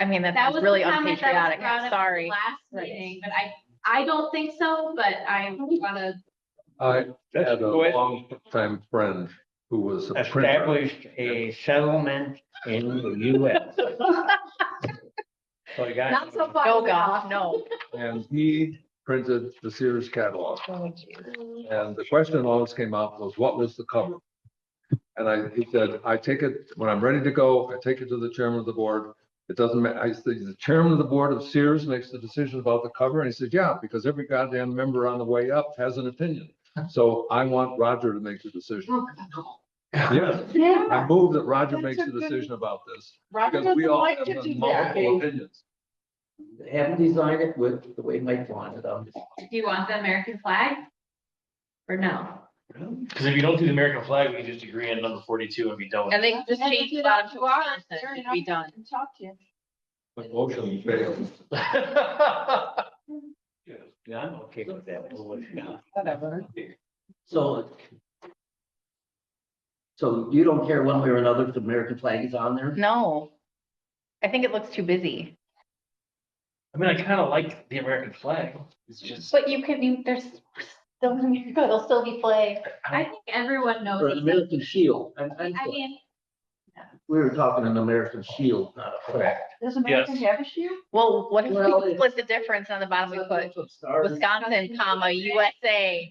I mean, That that's was really the comment that was unpatriotic, brought up I'm at the sorry. Last Right. meeting, but I, I don't think so, but I wanna, I had a Good. long-time friend who was a printer. established a settlement in the US. So I got. not so far. No, God, no. And he printed the Sears catalog. And the question always came up was, what was the cover? And I, he said, I take it, when I'm ready to go, I take it to the chairman of the board. It doesn't matter. I said, the chairman of the board of Sears makes the decision about the cover. And he said, yeah, because every goddamn member on the way up has an opinion. So I want Roger to make the decision. Yes, I move that Roger That's makes a the good- decision about this. Roger Because we doesn't all like have to do that. multiple opinions. Have them design it with the way Mike wanted them. Do you want the American flag? Or no? Because if you don't do the American flag, we can just agree on number forty-two and be done with And it. they can just And if change you the bottom don't to do ours, Wisconsin, sure it'd enough, be done. can Talk to you. The motion failed. Yeah, I'm okay with that. Whatever. So. So you don't care one way or another if the American flag is on there? No. I think it looks too busy. I mean, I kind of like the American flag. It's just. But you can, you, there's, still it'll still be flagged. I think everyone knows. Or an it's- American shield? And I mean, we were talking an American shield, not a flag. Does American have a shoe? Well, what if Well, we it's- split the difference on the bottom, we put Wisconsin, comma, USA?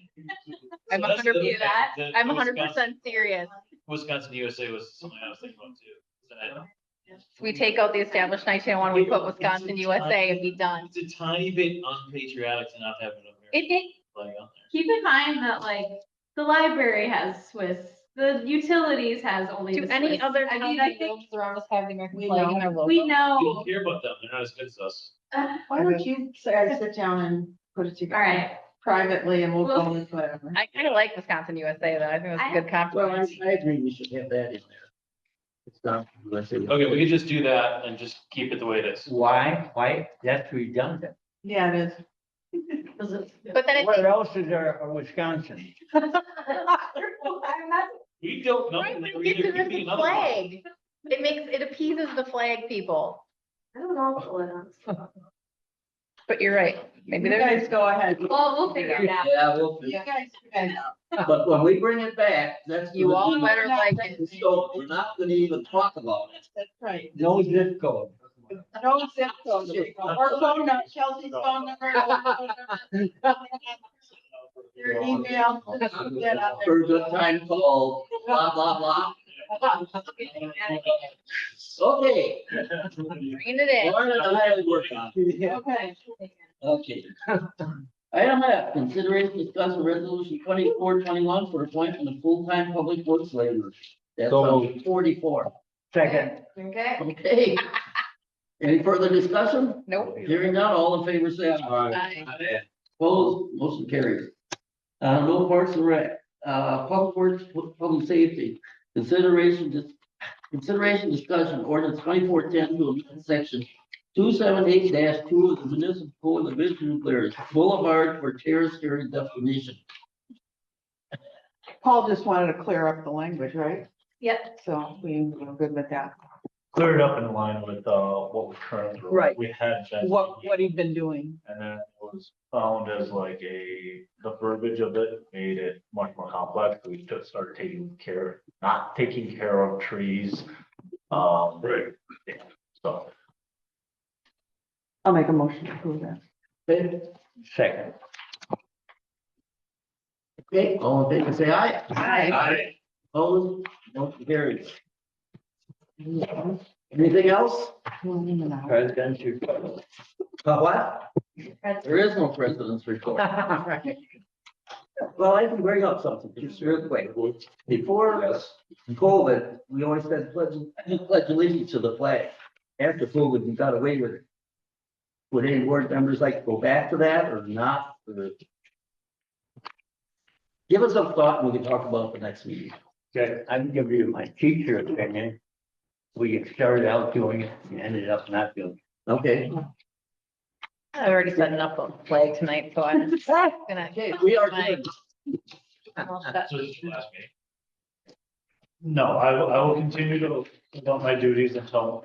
I'm So that's hundred, the- do that. the- I'm the hundred Wisconsin- percent serious. Wisconsin USA was something I was thinking about too. Is that- We take out the established nineteen one, we put Wisconsin, USA and be done. It's a tiny bit unpatriotic to not have an it, American it, flag on there. keep in mind that like, the library has Swiss, the utilities has only. Do the any Swiss. other I mean, towns I and think villages around us have the American We flag in know. their we logo? We don't know, care about them. They're not as good as us. Why don't you say, sit down and put it all together? right, Privately and we'll Well- go with whatever. I kind of like Wisconsin, USA though. I think that's a I- good Well, I, compromise. I agree, we should have that in there. It's not. USA. Okay, we could just do that and just keep it the way it is. Why, why, that's redundant. Yeah, it is. But then What it's, else is there in Wisconsin? We don't know. right, There we get either rid could of be the another one. flag. It makes, it appeases the flag people. I don't know. But you're right. Maybe You there's, guys go ahead. Well, we'll figure it out. Yeah, well, You guys, you guys. but when we bring it back, that's. you gonna all be- better like it. So we're not gonna even talk about it. That's right. No zip code. No zip code. Or phone number, Chelsea's phone number. Your email. get out there. For a good time call, blah, blah, blah. Okay, bringing it in. Lauren and I will work on it. Okay. Okay. Item F, consideration discuss a resolution twenty-four twenty-one for appointment of full-time public works laborers. That's So on forty-four. Second, Okay. Okay. Any further discussion? Nope. Hearing none, all in favor, say aye. Aye. Opposed, motion carries. Uh, no parks and rec, uh, public works, pu- public safety, consideration, dis- consideration discussion ordinance twenty-four ten to amend section two seven eight two of the municipal code of Vision Players Boulevard for terrace area definition. Paul just wanted to clear up the language, right? Yep. So we were good with that. Clear it up in line with, uh, what we're currently. Right. We had. that- What, what he'd been doing. And then it was found as like a, the verbiage of it made it much more complex. We just started taking care, not taking care of trees. Um, yeah, so. I'll make a motion to approve that. Okay, second. Okay, all in favor, say aye. Opposed, motion carries. Anything else? Presidential. Uh, What? There is no president's report. Well, I can bring up something just real quick. Before Yes. COVID, we always said pledge, pledge allegiance to the flag. After COVID, we got away with it. Would any board members like to go back to that or not? Or- Give us a thought and we can talk about it the next meeting. Okay, I'm giving you my teacher opinion. We started out doing it and ended up not doing it. Okay, I already set enough of flag tonight, so I'm gonna. okay, we are good. I'll shut- So this is your last meeting. No, I will, I will continue to, to do my duties until